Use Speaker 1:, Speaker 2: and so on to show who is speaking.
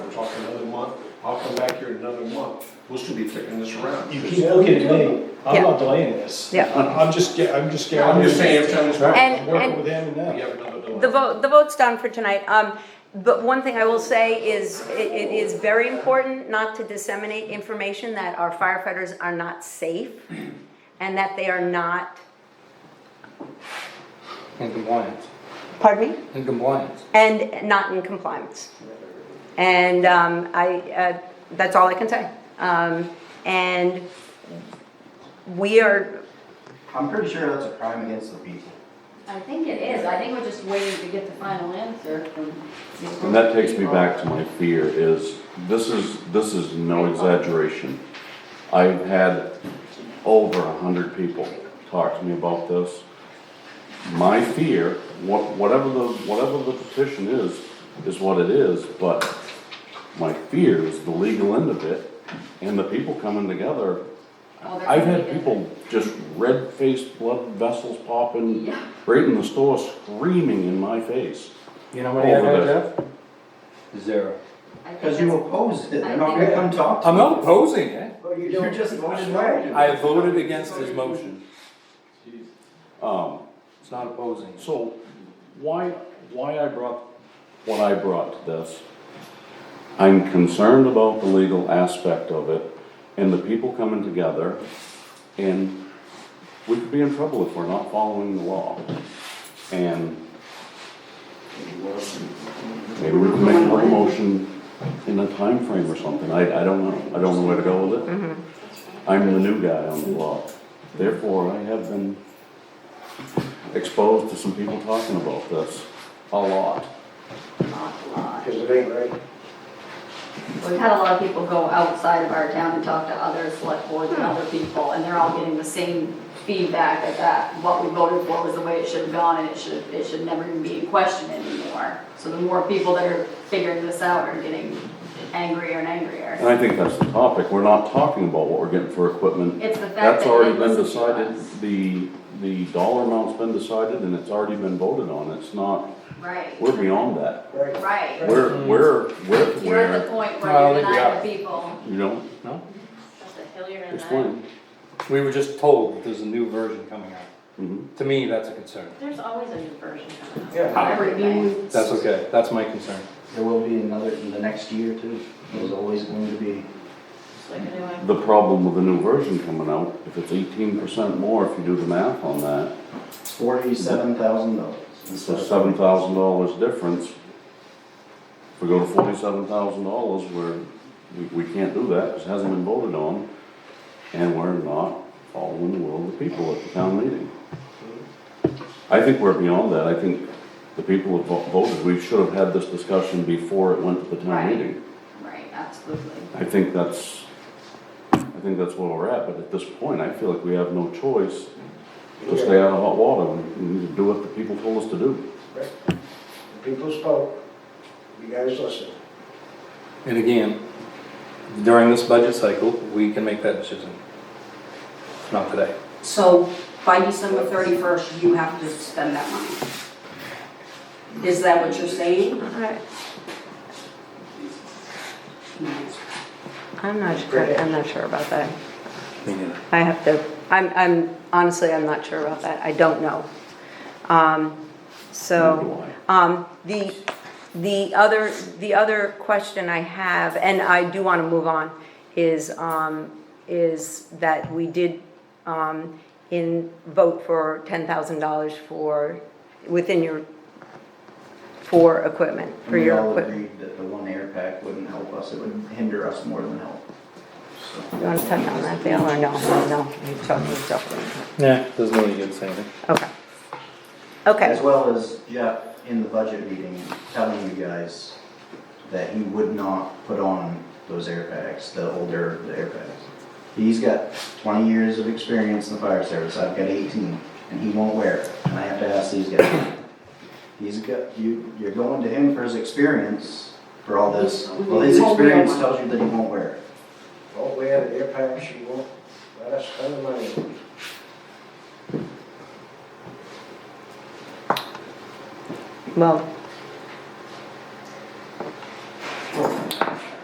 Speaker 1: come back here in another month, we'll still be kicking this around.
Speaker 2: You keep looking at me, I'm not delaying this.
Speaker 3: Yeah.
Speaker 2: I- I'm just, ga- I'm just gathering.
Speaker 1: I'm just saying, every time this happens,
Speaker 2: I'm
Speaker 3: And-
Speaker 2: working with him and
Speaker 1: we
Speaker 2: them.
Speaker 1: have another delay.
Speaker 3: The vote, the vote's done for tonight. Um, but one thing I will say is, it, it is very important not to disseminate information that our firefighters are not safe and that they are not,
Speaker 4: In compliance,
Speaker 3: pardon me,
Speaker 4: in compliance.
Speaker 3: and not in compliance. And, um, I, uh, that's all I can say. Um, and we are,
Speaker 5: I'm pretty sure that's a crime against the people.
Speaker 6: I think it is, I think we're just waiting to get the final answer from.
Speaker 7: And that takes me back to my fear is, this is, this is no exaggeration. I've had over a hundred people talk to me about this. My fear, wha- whatever the, whatever the petition is, is what it is, but my fear is the legal end of it and the people coming together.
Speaker 6: Oh, they're
Speaker 7: I've had
Speaker 6: gonna be
Speaker 7: people just red-faced, blood vessels popping,
Speaker 6: Yeah.
Speaker 7: right in the store screaming in my face.
Speaker 4: You know what I have
Speaker 7: Over
Speaker 4: there, Jeff? Zero.
Speaker 6: I think
Speaker 5: Because you
Speaker 6: that's-
Speaker 5: oppose it, they're
Speaker 6: I
Speaker 5: not
Speaker 6: think-
Speaker 5: gonna come talk to you.
Speaker 4: I'm not opposing it.
Speaker 5: You just voted no.
Speaker 4: I voted against his motion.
Speaker 7: Um,
Speaker 4: It's not opposing. it.
Speaker 7: So why, why I brought, what I brought to this, I'm concerned about the legal aspect of it and the people coming together and we could be in trouble if we're not following the law. And maybe we can make a motion in a time frame or something. I, I don't know. I don't know where to go with it. I'm the new guy on the block. Therefore, I have been exposed to some people talking about this a lot.
Speaker 6: We've had a lot of people go outside of our town and talk to other select boards and other people, and they're all getting the same feedback that that, what we voted for was the way it should have gone, and it should, it should never even be in question anymore. So the more people that are figuring this out are getting angrier and
Speaker 7: And
Speaker 6: angrier.
Speaker 7: I think that's the topic, we're not talking about what we're getting for equipment.
Speaker 6: It's the fact that.
Speaker 7: That's already
Speaker 6: they
Speaker 7: been
Speaker 6: listen to
Speaker 7: decided,
Speaker 6: us.
Speaker 7: the, the dollar amount's been decided and it's already been voted on, it's not,
Speaker 6: Right,
Speaker 7: we're beyond that.
Speaker 6: right.
Speaker 7: We're, we're, we're,
Speaker 6: Mm-hmm. You're at the
Speaker 7: where,
Speaker 6: point
Speaker 4: No, I
Speaker 6: where
Speaker 4: don't
Speaker 6: you're
Speaker 4: think we
Speaker 6: denying the people.
Speaker 7: you know,
Speaker 4: No?
Speaker 7: explain.
Speaker 4: We were just told there's a new version coming out.
Speaker 7: Mhm.
Speaker 4: To me, that's a concern.
Speaker 8: There's always a new version coming out.
Speaker 5: Yeah.
Speaker 6: Everything.
Speaker 4: That's okay. That's my concern.
Speaker 5: There will be another, in the next year too. There's always going to be.
Speaker 8: It's like a new one.
Speaker 7: The problem with the new version coming out, if it's eighteen percent more, if you do the math on that,
Speaker 5: Forty-seven thousand dollars.
Speaker 7: it's a seven thousand dollars difference. If we go to forty-seven thousand dollars, we're, we, we can't do that, 'cause it hasn't been voted on, and we're not following the will of the people at the town meeting. I think we're beyond that, I think the people have vo- voted, we should have had this discussion before it went to the town
Speaker 6: Right.
Speaker 7: meeting.
Speaker 6: Right, absolutely.
Speaker 7: I think that's, I think that's where we're at, but at this point, I feel like we have no choice to stay out of hot water, we need to do what the people told us to do.
Speaker 9: People spoke, you guys listened.
Speaker 4: And again, during this budget cycle, we can make that decision. Not today.
Speaker 6: So by December thirty-first, you have to spend that money? Is that what you're saying?
Speaker 3: I-
Speaker 6: Well,
Speaker 3: I'm not sure, I'm not sure about that.
Speaker 4: Me neither.
Speaker 3: I have to, I'm, I'm, honestly, I'm not sure about that, I don't know. Um, so, um, the, the other, the other question I have, and I do wanna move on, is, um, is that we did, um, in, vote for ten thousand dollars for, within your, for equipment, for
Speaker 5: We
Speaker 3: your
Speaker 5: all
Speaker 3: equipment.
Speaker 5: agreed that the one air pack wouldn't help us, it would hinder us more than help. So,
Speaker 3: You wanna touch on that, Dale, or no, no, you talk, you talk.
Speaker 4: Yeah, doesn't really good say anything.
Speaker 3: Okay. Okay.
Speaker 5: As well as Jeff in the budget meeting telling you guys that he would not put on those air packs, the older the air packs. He's got twenty years of experience in the fire service, I've got eighteen, and he won't wear it, and I have to ask these guys. He's got, you, you're going to him for his experience for all this, well, his experience tells you that he won't wear it.
Speaker 9: Won't we have an impact, she won't let us spend the money.
Speaker 3: Well,